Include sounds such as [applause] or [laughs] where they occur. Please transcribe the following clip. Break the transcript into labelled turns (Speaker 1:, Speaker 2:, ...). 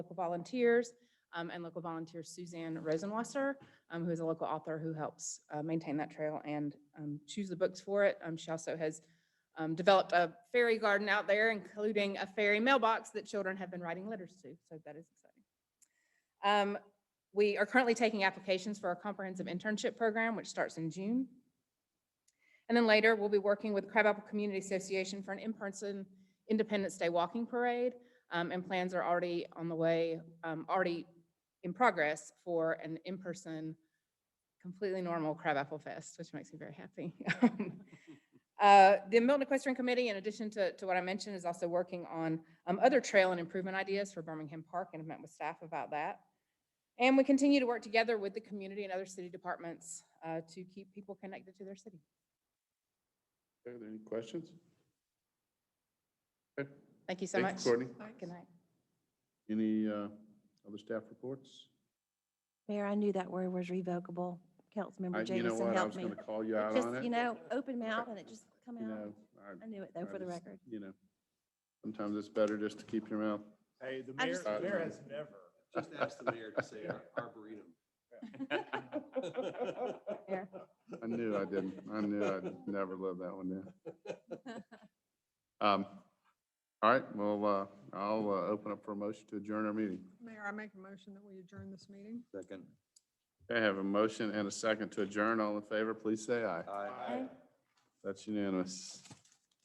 Speaker 1: local volunteers, um, and local volunteer Suzanne Rosenwasser, um, who is a local author who helps, uh, maintain that trail and, um, choose the books for it. Um, she also has, um, developed a fairy garden out there, including a fairy mailbox that children have been writing letters to, so that is exciting. Um, we are currently taking applications for our comprehensive internship program, which starts in June. And then later, we'll be working with Crabapple Community Association for an in-person Independence Day walking parade. Um, and plans are already on the way, um, already in progress for an in-person, completely normal Crabapple Fest, which makes me very happy. [laughs] Um, Uh, the Milton Equestrian Committee, in addition to, to what I mentioned, is also working on, um, other trail and improvement ideas for Birmingham Park and have met with staff about that. And we continue to work together with the community and other city departments, uh, to keep people connected to their city.
Speaker 2: Are there any questions? Okay,
Speaker 1: Thank you so
Speaker 2: Thank
Speaker 1: much.
Speaker 2: you, Courtney.
Speaker 1: Good night.
Speaker 2: Any uh, other staff reports?
Speaker 3: Mayor, I knew that word was revocable.
Speaker 2: I-
Speaker 3: Councilmember
Speaker 2: You know
Speaker 3: Jamison
Speaker 2: what, I was
Speaker 3: helped me.
Speaker 2: going to call you
Speaker 3: It
Speaker 2: out on
Speaker 3: Just,
Speaker 2: it.
Speaker 3: you know, open mouth and it just come
Speaker 2: You
Speaker 3: out.
Speaker 2: know, I-
Speaker 3: I knew it though,
Speaker 2: I
Speaker 3: for the
Speaker 2: just-
Speaker 3: record.
Speaker 2: You know, sometimes it's better just to keep your mouth.
Speaker 4: Hey, the
Speaker 3: I
Speaker 4: mayor,
Speaker 3: just-
Speaker 4: the mayor has never.
Speaker 5: Just ask the mayor to say ar-
Speaker 4: [laughs]
Speaker 5: arboretum.
Speaker 2: I knew I didn't. I knew I'd never live that one down.
Speaker 3: [laughs]
Speaker 2: Um, All right, well, uh, I'll uh, open up for a motion to adjourn our meeting.
Speaker 6: Mayor, I make a motion that we adjourn this meeting.
Speaker 5: Second.
Speaker 2: Okay, I have a motion and a second to adjourn. All in favor, please say aye.
Speaker 5: Aye.
Speaker 2: That's unanimous.